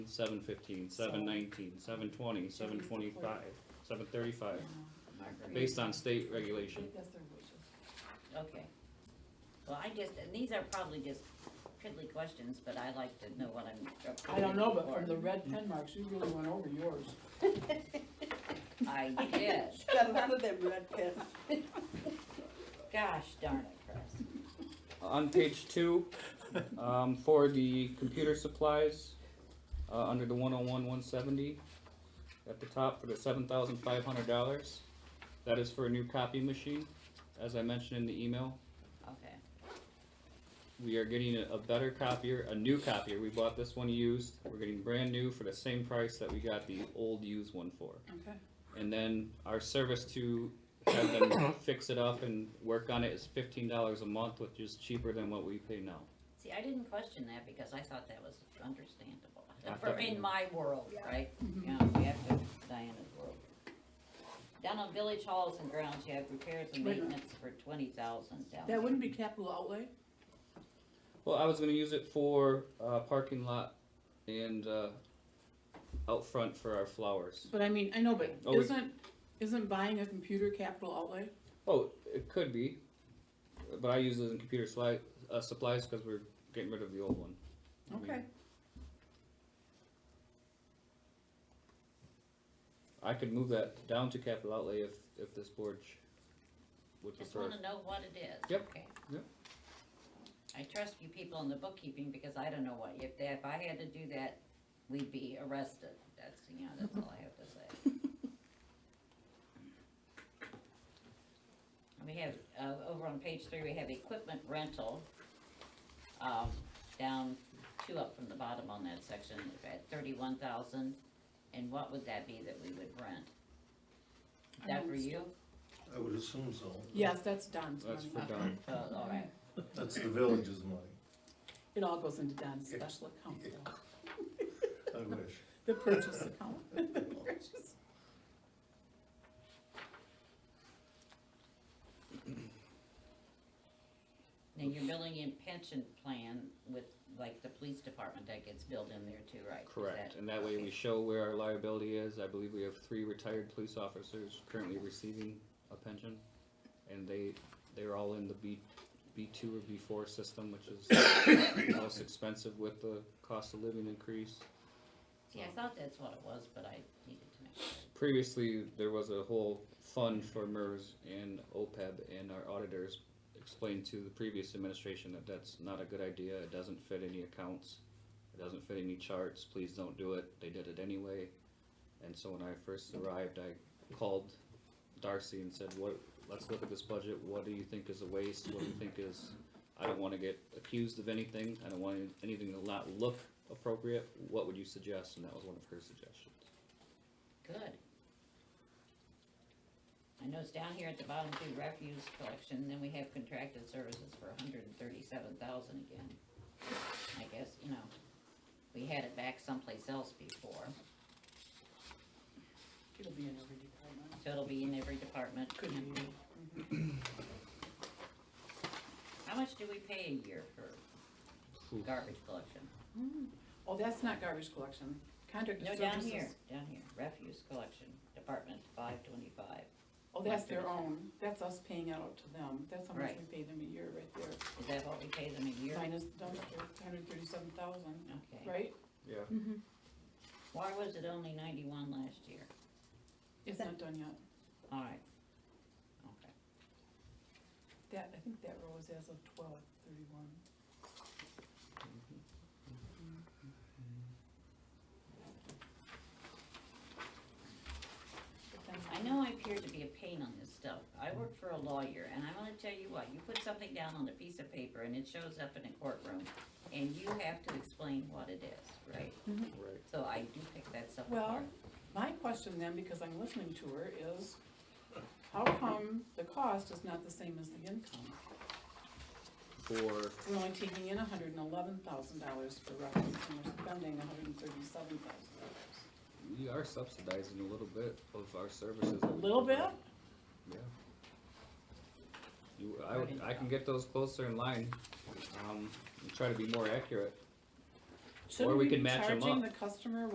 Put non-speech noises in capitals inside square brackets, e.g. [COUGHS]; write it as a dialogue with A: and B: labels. A: seven fifteen, seven nineteen, seven twenty, seven twenty-five, seven thirty-five, based on state regulation.
B: Okay. Well, I just, and these are probably just piddly questions, but I like to know what I'm.
C: I don't know, but from
B: voting
C: the red pen marks, you really went over yours.
B: for.
C: [LAUGHS]
B: I did.
D: Got a lot of them red pens.
B: Gosh darn it, Chris.
A: Uh, On page two, um, for the computer supplies, uh, under the one oh one, one seventy, at the top for the seven thousand five hundred dollars, that is for a new copy machine, as I mentioned in the email.
B: Okay.
A: We are getting a, a better copier, a new copier, we bought this one used, we're getting brand new for the same price that we got the old used one for.
C: Okay.
A: And then our service to have them [COUGHS] fix it up and work on it is fifteen dollars a month, which is cheaper than what we pay now.
B: See, I didn't question that because I thought that was understandable.
A: I
B: For
A: thought-
B: in my world,
D: Yeah.
B: right? Yeah, we have to, Diana's world. Down on village halls and grounds, you have repairs and
C: Wait a minute.
B: maintenance for twenty thousand down.
C: That wouldn't be capital outlay?
A: Well, I was gonna use it for uh, parking lot and uh, out front for our flowers.
C: But I mean, I know, but
A: Oh, we-
C: isn't, isn't buying a computer capital outlay?
A: Oh, it could be, but I use it in computer sli- uh, supplies because we're getting rid of the old one. I mean,
C: Okay.
A: I could move that down to capital outlay if if this board sh- would
B: Just
A: prefer.
B: wanna know what it is.
A: Yep,
B: okay?
A: yep.
B: I trust you people in the bookkeeping because I don't know what, if, that- if I had to do that, we'd be arrested. That's, you know, that's all I have to say. We have, uh, over on page three, we have equipment rental, um, down, two up from the bottom on that section, at thirty-one thousand. And what would that be that we would rent? Is that for you?
E: I would assume so.
C: Yes, that's Don's
A: That's
C: money.
A: for Don.
B: Oh, all right.
E: That's the village's money.
C: It all goes into Don's
E: Yeah.
C: special account, though.
E: I wish.
C: the purchase account. [LAUGHS] The purchase.
B: Now, you're billing in pension plan with, like, the police department that gets billed in there too, right? Is
A: Correct,
B: that-
A: and that way we
B: okay.
A: show where our liability is. I believe we have three retired police officers currently receiving a pension, and they, they're all in the B, B two or B four system, which is [COUGHS] the most expensive with the cost of living increase.
B: See, I thought that's what it was, but I needed to make sure.
A: Previously, there was a whole fund for MERS and OPEB, and our auditors explained to the previous administration that that's not a good idea, it doesn't fit any accounts, it doesn't fit any charts, please don't do it, they did it anyway. And so when I first arrived, I called Darcy and said, what, let's look at this budget, what do you think is a waste, what do you think is, I don't wanna get accused of anything, I don't want anything to not look appropriate, what would you suggest, and that was one of her suggestions.
B: Good. I know it's down here at the bottom too, refuse collection, then we have contracted services for hundred and thirty-seven thousand again. I guess, you know, we had it back someplace else before,
C: It'll be in every department.
B: so it'll be in every department.
C: Could be.
B: How much do we pay a year for
A: Phew.
B: garbage collection?
C: Oh, that's not garbage collection. Contracted
B: No,
C: services.
B: down here, down here, refuse collection, department five twenty-five,
C: Oh, that's their own. That's us paying out to them. That's how much we pay them a year right there.
B: is that what we pay them a year?
C: Minus the dumpster, hundred thirty-seven thousand,
B: Okay,
C: right?
A: Yeah.
B: why was it only ninety-one last year?
C: It's not done yet.
B: Alright, okay,
C: That, I think that row is as of twelve thirty-one. But then-
B: I know I appear to be a pain on this stuff, I work for a lawyer, and I'm gonna tell you what, you put something down on a piece of paper and it shows up in a courtroom, and you have to explain what it is, right?
A: Right.
B: So I do pick that stuff
C: Well,
B: apart.
C: My question then, because I'm listening to her, is how come the cost is not the same as the income?
A: for
C: We're only taking in hundred and eleven thousand dollars for records, and we're spending hundred and thirty-seven thousand dollars.
A: we are subsidizing a little bit of our services.
C: A little bit?
A: Yeah. You, I, would- I can get those closer in line, um, and try to be more accurate. Or
C: Shouldn't
A: we
C: we
A: could
C: be
A: match 'em
C: charging
A: up.
C: the customer